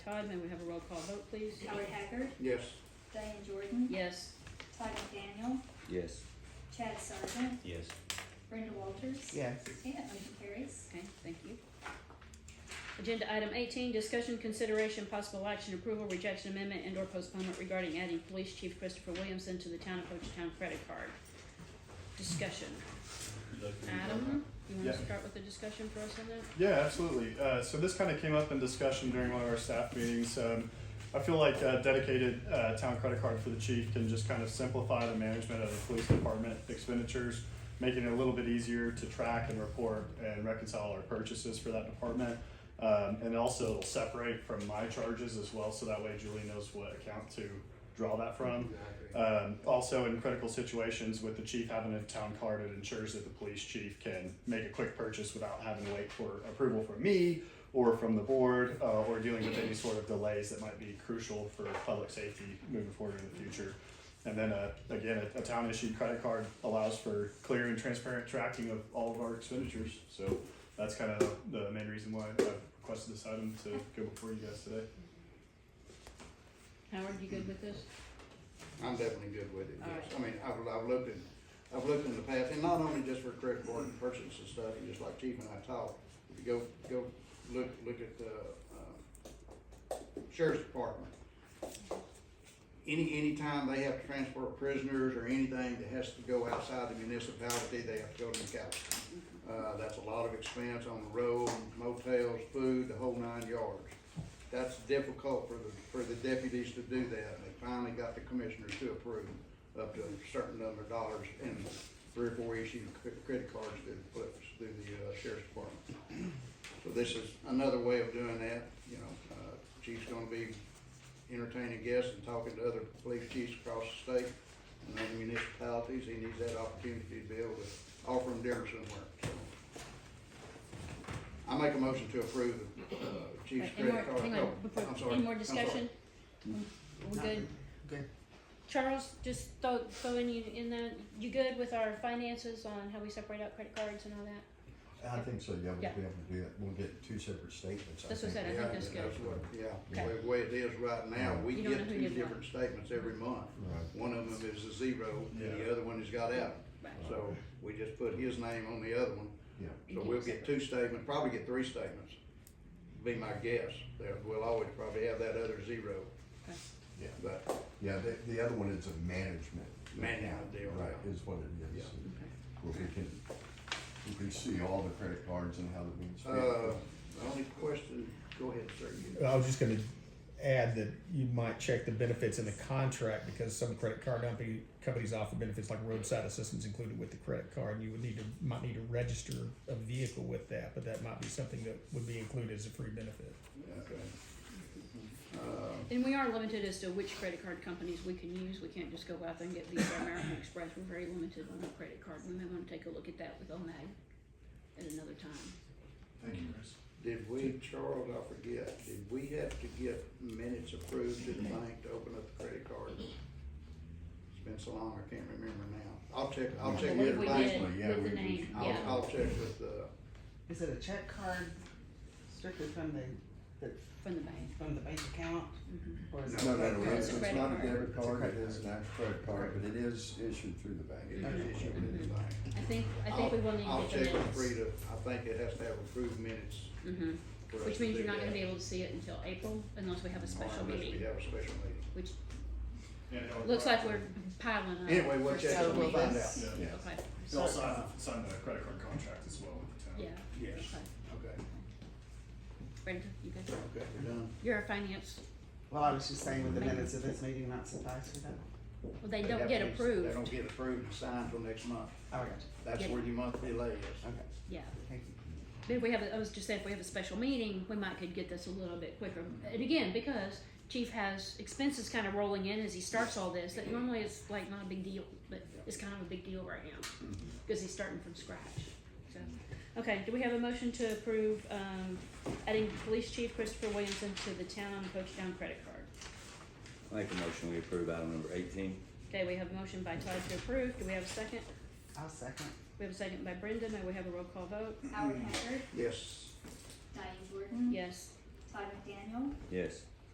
Todd, may we have a roll call vote, please? Howard Haggard, Yes. Diane Jordan, Yes. Todd McDaniel, Yes. Chad Sargent, Yes. Brenda Walters. yes, Okay, that motion carries. Okay, thank you. Agenda item eighteen, discussion, consideration, possible action, approval, rejection, amendment, and or postponement regarding adding Police Chief Christopher Williamson to the Town of Ho Chi Town credit card. Discussion. Adam, you wanna Yeah. start with the discussion for us on that? Yeah, absolutely. Uh, so this kind of came up in discussion during one of our staff meetings. Um, I feel like a dedicated uh, town credit card for the chief can just kind of simplify the management of the police department expenditures, making it a little bit easier to track and report and reconcile our purchases for that department. Um, and also it'll separate from my charges as well, so that way Julie knows what account to draw that from. Um, also, in critical situations with the chief having a town card, it ensures that the police chief can make a quick purchase without having to wait for approval from me or from the board, uh, or dealing with any sort of delays that might be crucial for public safety moving forward in the future. And then, uh, again, a, a town issued credit card allows for clear and transparent tracking of all of our expenditures. So that's kind of the main reason why I requested this item to go before you guys today. Howard, you good with this? I'm definitely good with it, yes. Alright. I mean, I've, I've looked in, I've looked in the past, and not only just for credit board and purchase and stuff, and just like Chief and I talked, if you go, go look, look at the, uh, sheriff's department. Any, anytime they have to transport prisoners or anything that has to go outside the municipality, they have to go to McAllister. Uh, that's a lot of expense on the road, motels, food, the whole nine yards. That's difficult for the, for the deputies to do that. They finally got the commissioners to approve up to a certain number of dollars and three or four issued cre- credit cards through the, flips- through the uh, sheriff's department. So this is another way of doing that, you know, uh, chief's gonna be entertaining guests and talking to other police chiefs across the state and other municipalities. He needs that opportunity to be able to offer them dinner somewhere, so. I make a motion to approve the, uh, chief's Right, any credit more, card. hang No, on, before- I'm sorry, any more I'm sorry. discussion? We good? good. Charles, just throw, throw in you, in that, you good with our finances on how we separate out credit cards and all that? I think so, yeah, we'll be Yeah. able to do that. We'll get two separate statements. I That's what I think. said, I think that's Yeah, good. what- Yeah, Okay. the way it is right now, we You don't know get who two did what. different statements every month. Right. One of them is a zero, and Yeah. the other one has got out. Right. So we just put his name on the other one. Yeah. You So can we'll do get two statements, probably get three statements, be my guess. There, we'll always probably have that other zero, Okay. Yeah, but yeah, the, the other one is a management. Management account, deal, Right, yeah. is what it is. Yeah. Where we can, we can see all the credit cards and how they're being spent. Uh, the only question, go ahead, sir. you- I was just gonna add that you might check the benefits in the contract because some credit card company, companies offer benefits like roadside assistance included with the credit card. And you would need to, might need to register a vehicle with that, but that might be something that would be included as a free benefit. Okay. Uh, And we are limited as to which credit card companies we can use. We can't just go out there and get Visa, American Express. We're very limited on our credit card. We may want to take a look at that with OMAG at another time. Thank you, Chris. Did we, Charles, I forget, did we have to get minutes approved to the bank to open up the credit card? It's been so long, I can't remember now. I'll check, I'll check Well, with if the we bank. did yeah, with we- the we- name, I'll, yeah. I'll check with the, Is it a check card strictly from the, the, From the bank. from the bank account? Or is it? No, no, no, It's it's, a it's credit not a card. debit It's a card, it credit is an actual credit card, but it is issued through the bank. it is issued with the bank. I think, I think we will need I'll- to get the I'll check with minutes. Frida, I think it has to have approved minutes. Mhm. for us Which to means do you're not that. gonna be able to see it until April unless we have a special Unless we meeting, have a special meeting. which And how it looks like works. we're piling up. Anyway, we'll check, so and we'll we'll find out. just- Yeah. Okay, They also signed, signed the credit card contract as well with the town. yeah, okay. Yes. Okay, Brenda, you good? okay, we're done. You're a finance, Well, I was just saying, would the minutes of this meeting not suffice for that? well, they don't have get to be- They approved, don't get approved and signed till next month. Oh, I got you. That's Yeah. where your month delay is. Okay, yeah. thank you. But if we have, a- I was just saying, if we have a special meeting, we might could get this a little bit quicker. And again, because chief has expenses kind of rolling in as he starts all this, that normally it's like not a big deal, but it's kind of a big deal right now. Because he's starting from scratch, so. Okay, do we have a motion to approve, um, adding police chief Christopher Williamson to the town Coach Town credit card? Make a motion, we approve item number eighteen. Okay, we have a motion by Todd to approve. Do we have a second? I'll second. We have a second by Brenda. May we have a roll call vote? Howard Haggard, Yes. Diane Jordan. Yes. Todd McDaniel, Yes.